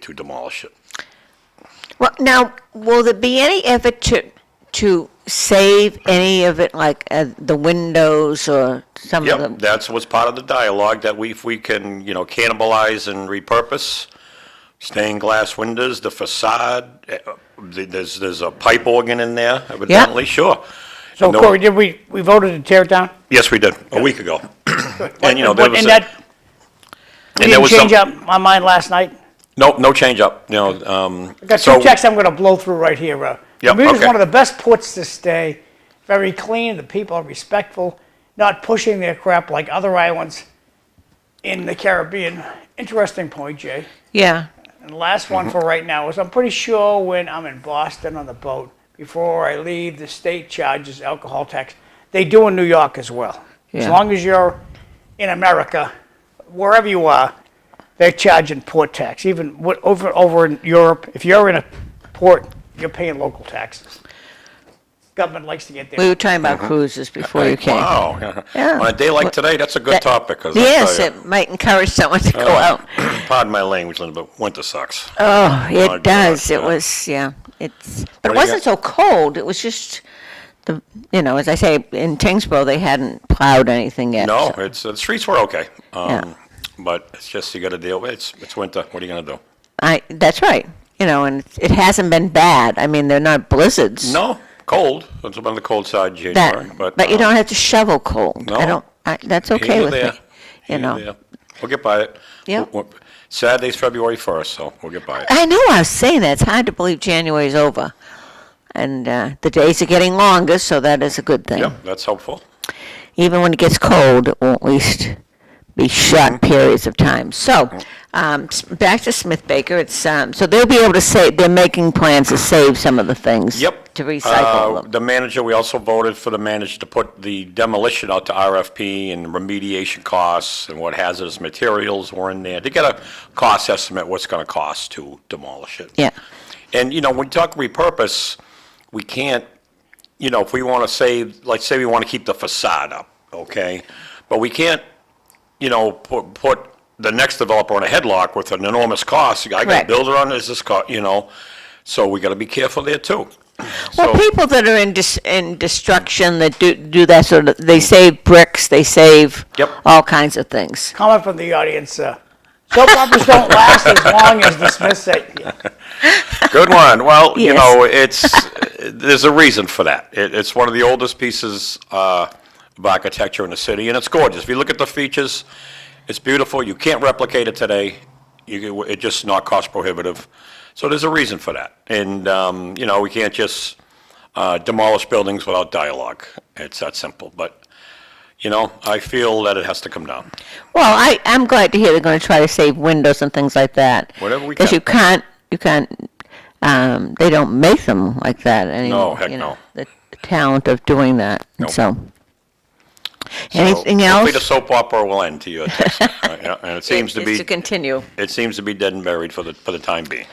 to demolish it. Well, now, will there be any effort to, to save any of it, like uh, the windows or some of Yep, them? that's what's part of the dialogue, that we, if we can, you know, cannibalize and repurpose stained glass windows, the facade, eh, uh, th- there's, there's a pipe organ in there evidently, sure. So No- Corey, did we, we voted to tear it down? Yes, we did, a week ago. And, you know, there What- was, And a- that, and there didn't was some. change up my mind last night. Nope, no change up, you know, um. Got so- two checks I'm gonna blow through right here, bro. Yep, Bermuda's okay. one of the best ports to stay, very clean, the people are respectful, not pushing their crap like other islands in the Caribbean. Interesting point, Jay. Yeah. And the last one for right now is I'm pretty sure when I'm in Boston on the boat, before I leave, the state charges alcohol tax. They do in New York as well. As Yeah. long as you're in America, wherever you are, they're charging port tax. Even what, over over in Europe, if you're in a port, you're paying local taxes. Government likes to get We there. were talking about cruises before you came. Uh-huh. Oh, Wow, Yeah. on a day like today, that's a good That- topic, 'cause I'll tell Yes, you, it oh, might encourage someone to go uh, out. Pardon my language, Linda, but winter sucks. Oh, my it does. God, It yeah. was, yeah, it's, but What it do you wasn't got? so cold. It was just the, you know, as I say, in Tingsboro, they hadn't plowed anything yet. No, so- it's, the streets were okay. Yeah. Um, but it's just, you gotta deal with, it. it's, it's winter, what are you gonna do? I, that's right. You know, and it hasn't been bad. I mean, they're not blizzards. No, cold, it's been on the cold side in January, That, but. but you um, don't have to shovel cold. No. I don't, I, that's here okay you're with there, me. You here know, there. We'll get by it. Yep. W- w- Saturday's February first, so we'll get by it. I know I was saying that. It's hard to believe January's over. And uh, the days are getting longer, so that is a good thing. Yep, that's helpful. Even when it gets cold, it won't at least be short Mm-hmm. periods of time. So, um, s- back to Smith Baker. It's um, so they'll be able to save. They're making plans to save some of the things. Yep. To Uh, recycle them. The manager, we also voted for the manager to put the demolition out to RFP and remediation costs and what hazardous materials were in there, to get a cost estimate, what's gonna cost to demolish it. Yeah. And, you know, when we talk repurpose, we can't, you know, if we want to save, like, say we want to keep the facade up, okay? But we can't, you know, put, put the next developer on a headlock with an enormous cost. I got a Correct. builder on this, this cost, you know? So we got to be careful there too. Well, So- people that are in dis- in destruction that do do that sort of they save bricks, they save Yep. all kinds of things. Comment from the audience, uh, soap operas don't last as long as the Smiths say. Good one. Well, you Yes. know, it's, there's a reason for that. It, it's one of the oldest pieces uh, of architecture in the city, and it's gorgeous. If you look at the features, it's beautiful. You can't replicate it today. You, it's just not cost prohibitive. So there's a reason for that. And, um, you know, we can't just uh, demolish buildings without dialogue. It's that simple. But, you know, I feel that it has to come down. Well, I, I'm glad to hear they're going to try to save windows and things like that. Whatever we Because can. you can't, you can't, um, they don't make them like that anymore. heck you no. know, The talent of doing that, Nope. so. So Anything Hopefully the else? soap opera will end to you. Uh, And it seems to Is be. to continue. It seems to be dead and buried for the, for the time being.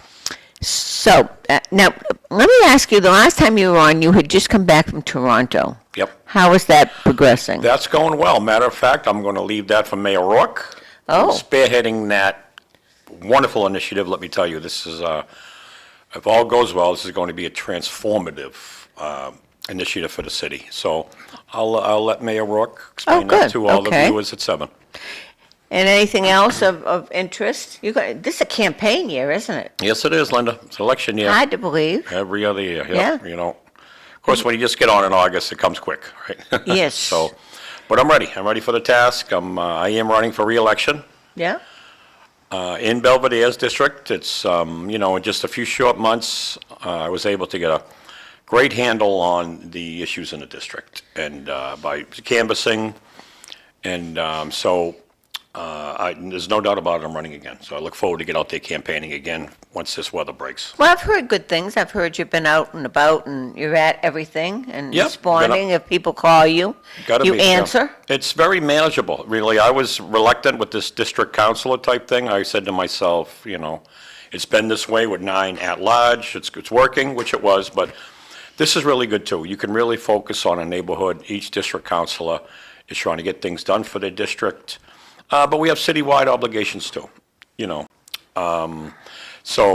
So, uh, now, let me ask you, the last time you were on, you had just come back from Toronto. Yep. How is that progressing? That's going well. Matter of fact, I'm going to leave that for Mayor Rourke. Oh. Who's Spearheading that wonderful initiative, let me tell you. This is, uh, if all goes well, this is going to be a transformative um, initiative for the city. So I'll, I'll let Mayor Rourke explain that Oh, good. to all the Okay. viewers at 7. And anything else of, of interest? You got, this is a campaign year, isn't it? Yes, it is, Linda. It's election year. Hard to believe. Every other year, yeah, Yeah. you know. Of course, when you just get on in August, it comes quick, right? Yes. So, but I'm ready. I'm ready for the task. I'm, uh, I am running for reelection Yeah? uh, in Belvedere's district. It's, um, you know, in just a few short months, uh, I was able to get a great handle on the issues in the district and uh, by canvassing. And um, so uh, I, there's no doubt about it, I'm running again. So I look forward to get out there campaigning again once this weather breaks. Well, I've heard good things. I've heard you've been out and about and you're at everything Yep, and been out- responding if people call you. Gotta you be, yeah. answer. It's very manageable, really. I was reluctant with this district councilor type thing. I said to myself, you know, it's been this way with nine at-large, it's, it's working, which it was, but this is really good, too. You can really focus on a neighborhood. Each district councilor is trying to get things done for their district, Uh, but we have citywide obligations, too, you know. Um, So